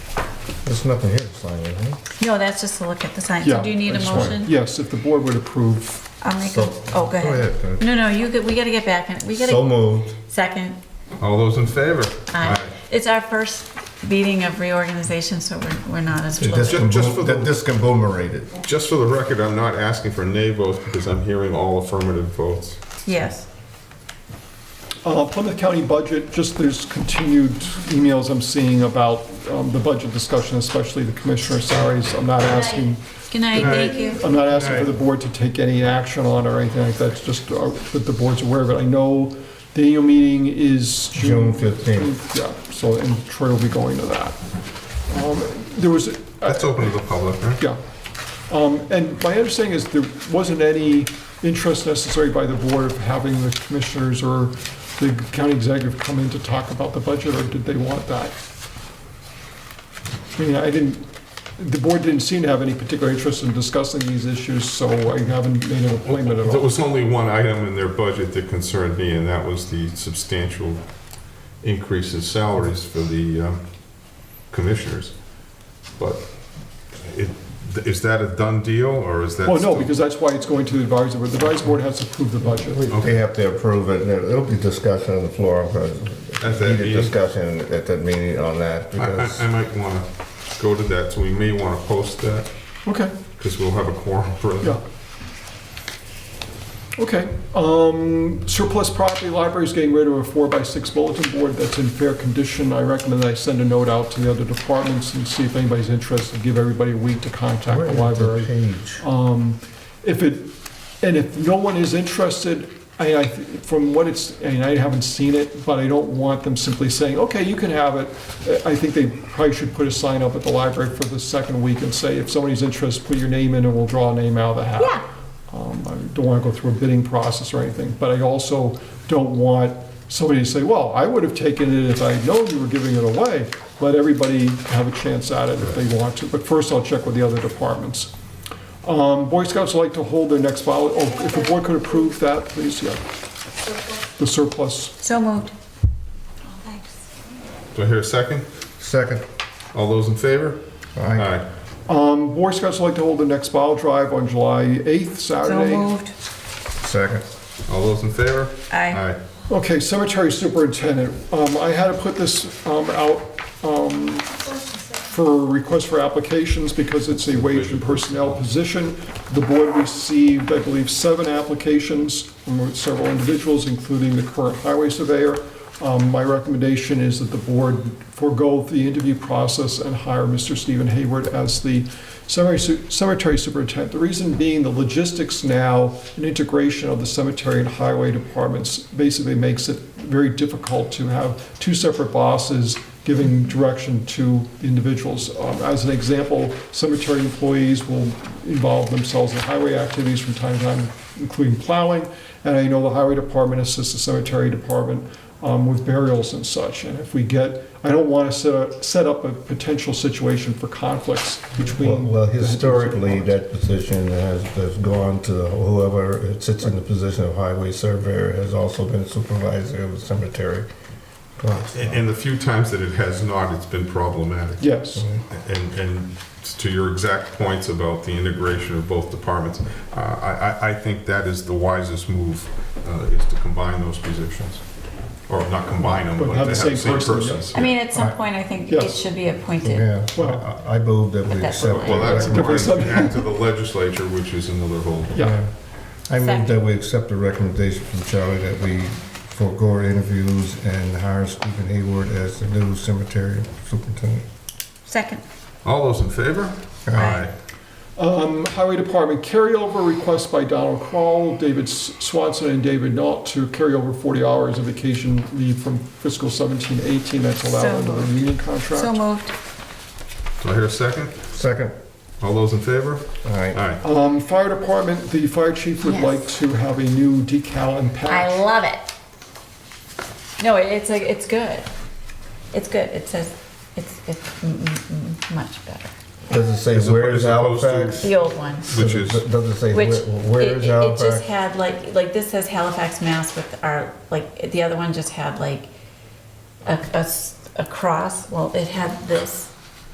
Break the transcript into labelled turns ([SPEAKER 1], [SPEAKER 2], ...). [SPEAKER 1] There's nothing here to sign, is there?
[SPEAKER 2] No, that's just to look at the sign. So
[SPEAKER 3] Yeah,
[SPEAKER 2] do you need
[SPEAKER 3] I
[SPEAKER 2] a
[SPEAKER 3] just wanted-
[SPEAKER 2] motion?
[SPEAKER 3] Yes, if the board would approve,
[SPEAKER 2] I'll make a,
[SPEAKER 1] So-
[SPEAKER 2] oh, go
[SPEAKER 1] Go
[SPEAKER 2] ahead.
[SPEAKER 1] ahead, Kurt.
[SPEAKER 2] No, no, you, get- we gotta get back in, we
[SPEAKER 1] So
[SPEAKER 2] gotta,
[SPEAKER 1] moved.
[SPEAKER 2] second.
[SPEAKER 4] All those in favor?
[SPEAKER 2] Aye. It's our first meeting of reorganization, so we're, we're not as
[SPEAKER 1] This
[SPEAKER 2] fluid.
[SPEAKER 1] can
[SPEAKER 4] just
[SPEAKER 1] boom-
[SPEAKER 4] for the-
[SPEAKER 1] This can boomerate it.
[SPEAKER 4] Aye. Just for the record, I'm not asking for nay votes because I'm hearing all affirmative votes.
[SPEAKER 2] Yes.
[SPEAKER 3] Uh, Plymouth County budget, just there's continued emails I'm seeing about um, the budget discussion, especially the commissioner salaries. I'm not asking,
[SPEAKER 2] Good night, thank you.
[SPEAKER 3] I'm not asking for the board to take any action on or anything like that, it's just uh, that the board's aware of it. I know the annual meeting is
[SPEAKER 1] June
[SPEAKER 3] June
[SPEAKER 1] 15th.
[SPEAKER 3] 15th. Yeah, so, and Troy will be going to that. Um, There was,
[SPEAKER 4] That's open to the public, right?
[SPEAKER 3] yeah. Um, And my understanding is there wasn't any interest necessary by the board of having the commissioners or the county executive come in to talk about the budget, or did they want that? I mean, I didn't, the board didn't seem to have any particular interest in discussing these issues, so I haven't made an appointment at
[SPEAKER 4] There
[SPEAKER 3] all.
[SPEAKER 4] was only one item in their budget that concerned me, and that was the substantial increase in salaries for the um, commissioners. But it- is that a done deal, or is that?
[SPEAKER 3] Well, no,
[SPEAKER 4] still-
[SPEAKER 3] because that's why it's going to the advisory board. The advisory board has to approve the budget.
[SPEAKER 1] They have to approve it, and it'll be discussion on the floor, but
[SPEAKER 4] At that
[SPEAKER 1] heated
[SPEAKER 4] meeting?
[SPEAKER 1] discussion at that meeting on that,
[SPEAKER 4] I- I
[SPEAKER 1] because
[SPEAKER 4] I might want to go to that, so we may want to post that,
[SPEAKER 3] Okay,
[SPEAKER 4] because we'll have a quorum for
[SPEAKER 3] yeah.
[SPEAKER 4] that.
[SPEAKER 3] Okay, um, surplus property, library's getting rid of a four-by-six bulletin board that's in fair condition. I recommend that I send a note out to the other departments and see if anybody's interested, give everybody a week to contact
[SPEAKER 1] where
[SPEAKER 3] the
[SPEAKER 1] is the
[SPEAKER 3] library.
[SPEAKER 1] page?
[SPEAKER 2] Oh.
[SPEAKER 3] Um, If it, and if no one is interested, I, I, from what it's, and I haven't seen it, but I don't want them simply saying, okay, you can have it. I I think they probably should put a sign up at the library for the second week and say, if somebody's interested, put your name in and we'll draw a name out of the hat.
[SPEAKER 2] Yeah.
[SPEAKER 3] Um, I don't want to go through a bidding process or anything, but I also don't want somebody to say, well, I would have taken it if I'd known you were giving it away. Let everybody have a chance at it if they want to, but first I'll check with the other departments. Um, Boy Scouts like to hold their next vol, oh, if the board could approve that, please, yeah. The surplus,
[SPEAKER 2] So moved.
[SPEAKER 4] Do I hear a second?
[SPEAKER 1] Second.
[SPEAKER 4] All those in favor?
[SPEAKER 1] Aye.
[SPEAKER 3] um, Boy Scouts like to hold their next vol drive on July 8th,
[SPEAKER 2] So
[SPEAKER 3] Saturday.
[SPEAKER 2] moved.
[SPEAKER 1] Second.
[SPEAKER 4] All those in favor?
[SPEAKER 2] Aye.
[SPEAKER 3] Okay, cemetery superintendent, um, I had to put this, um, out, um, for request for applications because it's a wage and personnel position. The board received, I believe, seven applications from several individuals, including the current highway surveyor. Um, my recommendation is that the board forego the interview process and hire Mr. Stephen Hayward as the cemetery su- cemetery superintendent. The reason being the logistics now and integration of the cemetery and highway departments basically makes it very difficult to have two separate bosses giving direction to individuals. Um, As an example, cemetery employees will involve themselves in highway activities from time to time, including plowing, and I know the highway department assists the cemetery department um, with burials and such. And if we get, I don't want to set, a- set up a potential situation for conflicts
[SPEAKER 1] Well,
[SPEAKER 3] between.
[SPEAKER 1] well, historically, that position has, has gone to whoever sits in the position of highway surveyor has also been supervisor of the cemetery. Gosh,
[SPEAKER 4] And and the few times that it has not, it's been problematic.
[SPEAKER 3] Yes,
[SPEAKER 4] And, and to your exact points about the integration of both departments, uh, I, I, I think that is the wisest move, uh, is to combine those positions. Or not combine them,
[SPEAKER 3] But
[SPEAKER 4] but to have the same
[SPEAKER 3] person, yeah.
[SPEAKER 4] persons.
[SPEAKER 2] I mean, at some point, I think it
[SPEAKER 3] Yes.
[SPEAKER 2] should be appointed.
[SPEAKER 1] Yeah,
[SPEAKER 3] well,
[SPEAKER 1] I I move that we
[SPEAKER 2] That's
[SPEAKER 1] accept.
[SPEAKER 2] what I-
[SPEAKER 4] Well, that's
[SPEAKER 1] the
[SPEAKER 3] different
[SPEAKER 4] according
[SPEAKER 3] subject.
[SPEAKER 4] back to the legislature, which is another whole.
[SPEAKER 1] Mm-hmm.
[SPEAKER 3] yeah.
[SPEAKER 1] I move
[SPEAKER 2] Second.
[SPEAKER 1] that we accept the recommendation from Charlie that we forego our interviews and hire Stephen Hayward as the new cemetery superintendent.
[SPEAKER 2] Second.
[SPEAKER 4] All those in favor?
[SPEAKER 2] Aye.
[SPEAKER 3] Um, Highway Department carryover request by Donald Kroll, David S- Swanson, and David Nault to carry over 40 hours of vacation leave from fiscal 17-18 that's allowed
[SPEAKER 2] So
[SPEAKER 3] under the
[SPEAKER 2] moved.
[SPEAKER 3] union
[SPEAKER 2] So
[SPEAKER 3] contract.
[SPEAKER 2] moved.
[SPEAKER 4] Do I hear a second?
[SPEAKER 1] Second,
[SPEAKER 4] All those in favor?
[SPEAKER 1] all right,
[SPEAKER 4] Aye.
[SPEAKER 3] Um, Fire Department, the fire chief would
[SPEAKER 2] Yes.
[SPEAKER 3] like to have a new decal and
[SPEAKER 2] I
[SPEAKER 3] patch.
[SPEAKER 2] love it. No, it- it's like, it's good. It's good. It says, it's, it's mm, mm, mm, much better.
[SPEAKER 1] does it say
[SPEAKER 4] As
[SPEAKER 1] where is
[SPEAKER 4] opposed to-
[SPEAKER 1] Halifax?
[SPEAKER 2] The old one.
[SPEAKER 4] Which is-
[SPEAKER 1] Does it say
[SPEAKER 2] Which,
[SPEAKER 1] where- where
[SPEAKER 2] it,
[SPEAKER 1] is
[SPEAKER 2] it- it just
[SPEAKER 1] Halifax?
[SPEAKER 2] had like, like this says Halifax, Mass with our, like, the other one just had like a, a s- a cross. Well, it had this.